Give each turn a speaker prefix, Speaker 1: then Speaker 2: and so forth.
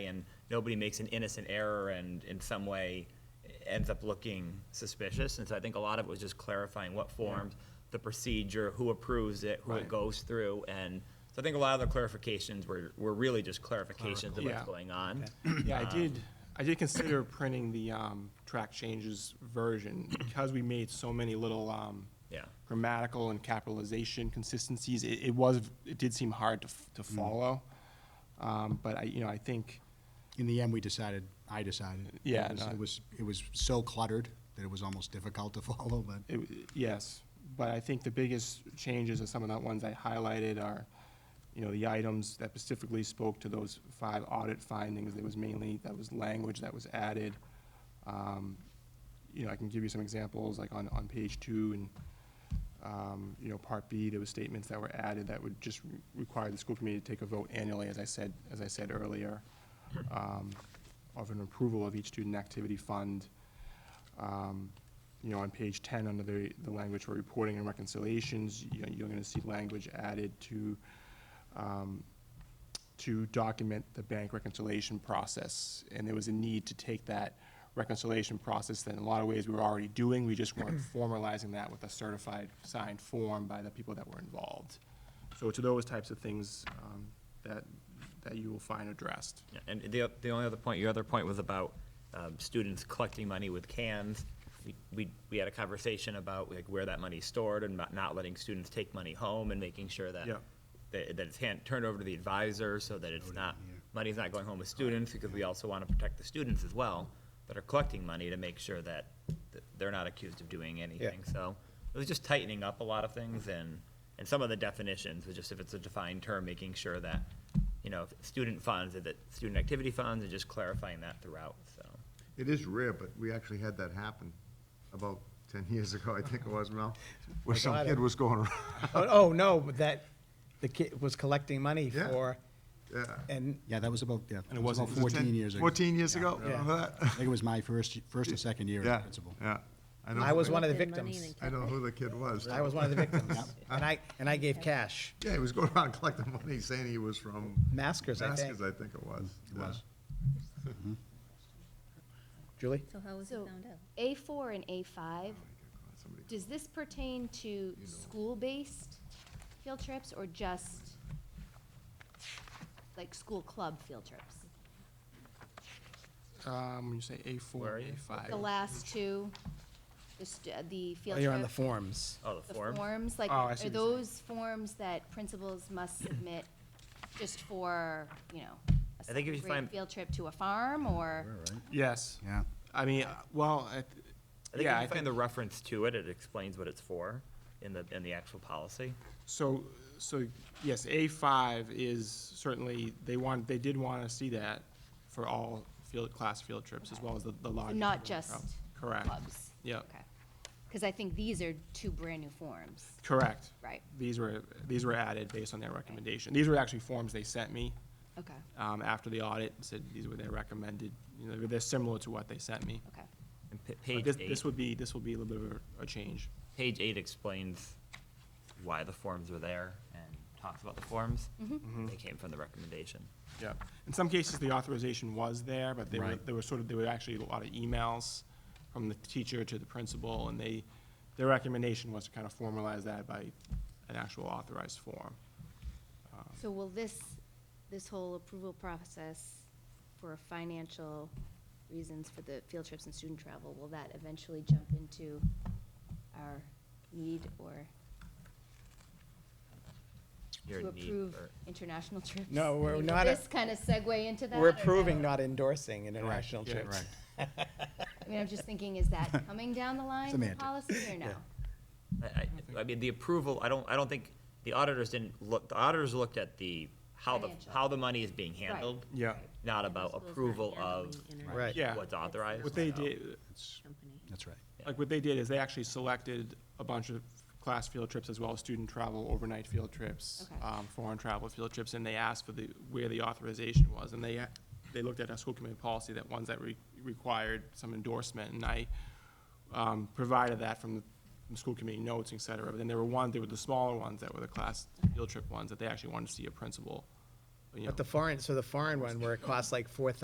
Speaker 1: and nobody makes an innocent error and in some way ends up looking suspicious. And so I think a lot of it was just clarifying what forms, the procedure, who approves it, who it
Speaker 2: Right.
Speaker 1: goes through. And so I think a lot of the clarifications were, were really just clarifications of what's
Speaker 2: Yeah.
Speaker 1: going on.
Speaker 2: Yeah, I did, I did consider printing the um, track changes version because we made so many little um,
Speaker 1: Yeah.
Speaker 2: grammatical and capitalization consistencies. It, it was, it did seem hard to, f- to follow. Um, But I, you know, I think,
Speaker 3: In the end, we decided, I decided. it
Speaker 2: Yeah,
Speaker 3: was-
Speaker 2: no.
Speaker 3: It was, it was so cluttered that it was almost difficult to follow, but.
Speaker 2: it, yes, but I think the biggest changes are some of the ones I highlighted are, you know, the items that specifically spoke to those five audit findings. There was mainly, that was language that was added. Um, You know, I can give you some examples, like on, on page two and, um, you know, part B, there was statements that were added that would just re- require the school committee to take a vote annually, as I said, as I said earlier, um, of an approval of each student activity fund. Um, You know, on page ten, under the, the language for reporting and reconciliations, you know, you're gonna see language added to, um, to document the bank reconciliation process. And there was a need to take that reconciliation process that in a lot of ways we were already doing, we just weren't formalizing that with a certified signed form by the people that were involved. So to those types of things, um, that, that you will find addressed.
Speaker 1: Yeah, And the, the only other point, your other point was about um, students collecting money with cans. We- We, we had a conversation about like where that money's stored and not- not letting students take money home and making sure that
Speaker 2: Yeah.
Speaker 1: that that it's hand, turned over to the advisor so that it's not,
Speaker 3: yeah.
Speaker 1: money's not going home with students because we also want to protect the students as well that are collecting money to make sure that that they're not accused of doing anything. So it was just tightening up a lot of things and, and some of the definitions, was just if it's a defined term, making sure that, you know, if it's student funds, is it student activity funds, and just clarifying that throughout, so.
Speaker 4: It is rare, but we actually had that happen about ten years ago, I think it was, Mel, where
Speaker 5: I
Speaker 4: some
Speaker 5: got
Speaker 4: kid
Speaker 5: it.
Speaker 4: was going around.
Speaker 5: Oh, oh, no, but that, the kid was collecting money
Speaker 4: Yeah.
Speaker 5: for,
Speaker 4: Yeah.
Speaker 5: and,
Speaker 3: Yeah, that was about, yeah.
Speaker 2: And it
Speaker 3: was
Speaker 2: wasn't-
Speaker 3: about
Speaker 2: it was
Speaker 3: Fourteen years ago.
Speaker 4: Fourteen years
Speaker 3: Yeah.
Speaker 4: ago,
Speaker 5: Yeah.
Speaker 4: remember
Speaker 3: I
Speaker 4: that?
Speaker 3: think it was my first, first or second year
Speaker 4: Yeah,
Speaker 3: as principal.
Speaker 4: yeah. don't
Speaker 5: I
Speaker 4: know
Speaker 5: was
Speaker 4: who-
Speaker 5: one of the
Speaker 6: Collected money
Speaker 5: victims.
Speaker 4: I
Speaker 6: and
Speaker 4: don't know who the kid was.
Speaker 5: I was one of the victims. And I, and I gave cash,
Speaker 4: Yeah, he was going around collecting money, saying he was from.
Speaker 5: Maskers, I think.
Speaker 4: Maskers, I think it was.
Speaker 3: It
Speaker 4: yeah.
Speaker 3: was.
Speaker 5: Julie?
Speaker 6: So how was it
Speaker 7: So,
Speaker 6: found out?
Speaker 7: A4 and
Speaker 2: Oh,
Speaker 7: A5,
Speaker 4: Somebody-
Speaker 7: does this pertain to school-based field trips or just like school club field trips?
Speaker 2: Um, when you say A
Speaker 1: Where
Speaker 2: four,
Speaker 1: are
Speaker 2: A
Speaker 1: you?
Speaker 2: five.
Speaker 7: The last two, the st- uh, the field
Speaker 5: Oh,
Speaker 7: trip?
Speaker 5: you're on the forms.
Speaker 1: Oh, the
Speaker 7: The
Speaker 1: form?
Speaker 7: forms, like,
Speaker 2: Oh, I
Speaker 7: are
Speaker 2: see what you're saying.
Speaker 7: those forms that principals must submit just for, you know, a
Speaker 1: I think if you
Speaker 7: second grade
Speaker 1: find-
Speaker 7: field trip to a farm or?
Speaker 2: Yes.
Speaker 3: Yeah.
Speaker 2: I mean, uh, well, I th-
Speaker 1: I think
Speaker 2: yeah,
Speaker 1: if
Speaker 2: I
Speaker 1: you find
Speaker 2: think,
Speaker 1: the reference to it, it explains what it's for in the, in the actual policy.
Speaker 2: so, so, yes, A five is certainly, they want, they did want to see that for all field, class field trips, as well as the, the larger.
Speaker 7: Not
Speaker 2: field
Speaker 7: just
Speaker 2: trips. Correct.
Speaker 7: clubs?
Speaker 2: Yep.
Speaker 7: Okay. Because I think these are two brand-new forms.
Speaker 2: Correct.
Speaker 7: Right.
Speaker 2: These were, these were added based on their recommendation. These were actually forms they sent me,
Speaker 7: Okay,
Speaker 2: um, after the audit, and said these were their recommended, you know, they're similar to what they sent me.
Speaker 7: okay.
Speaker 1: And pa-
Speaker 2: But
Speaker 1: Page
Speaker 2: this-
Speaker 1: eight.
Speaker 2: This would be, this will be a little bit of a- a change.
Speaker 1: Page eight explains why the forms were there and talks about the forms.
Speaker 7: Mm-hmm.
Speaker 2: Mm-hmm.
Speaker 1: They came from the recommendation.
Speaker 2: Yeah, in some cases, the authorization was there, but they were,
Speaker 3: Right.
Speaker 2: they were sort of, there were actually a lot of emails from the teacher to the principal, and they, their recommendation was to kind of formalize that by an actual authorized form.
Speaker 7: So will this, this whole approval process for financial reasons for the field trips and student travel, will that eventually jump into our need or
Speaker 1: Your
Speaker 7: to
Speaker 1: need
Speaker 7: approve
Speaker 1: for-
Speaker 7: international trips?
Speaker 5: No,
Speaker 7: I
Speaker 5: we're
Speaker 7: mean, will
Speaker 5: not a-
Speaker 7: this kind of segue into that?
Speaker 5: We're
Speaker 7: or no?
Speaker 5: approving, not endorsing international
Speaker 2: yeah,
Speaker 5: trips.
Speaker 7: I mean, I'm just thinking, is that coming down the line in
Speaker 3: Semantic.
Speaker 7: policy or no?
Speaker 1: I, I- I mean, the approval, I don't, I don't think, the auditors didn't look, the auditors looked at the, how the,
Speaker 7: Financial.
Speaker 1: how the money is being handled,
Speaker 2: Yeah.
Speaker 1: not about
Speaker 6: Schools not
Speaker 1: approval of
Speaker 6: handling internet
Speaker 5: Right.
Speaker 2: Yeah.
Speaker 1: what's authorized.
Speaker 2: What they
Speaker 1: so.
Speaker 2: did,
Speaker 6: company.
Speaker 3: That's right.
Speaker 2: like, what they did is they actually selected a bunch of class field trips as well as student travel, overnight field trips,
Speaker 7: Okay.
Speaker 2: um, foreign travel field trips, and they asked for the, where the authorization was, and they, they looked at our school committee policy, that ones that re- required some endorsement, and I, um, provided that from the, from school committee notes, et cetera, but then there were ones, there were the smaller ones that were the class field trip ones, that they actually wanted to see a principal, you know,
Speaker 5: But the foreign, so the foreign one where it costs like four thousand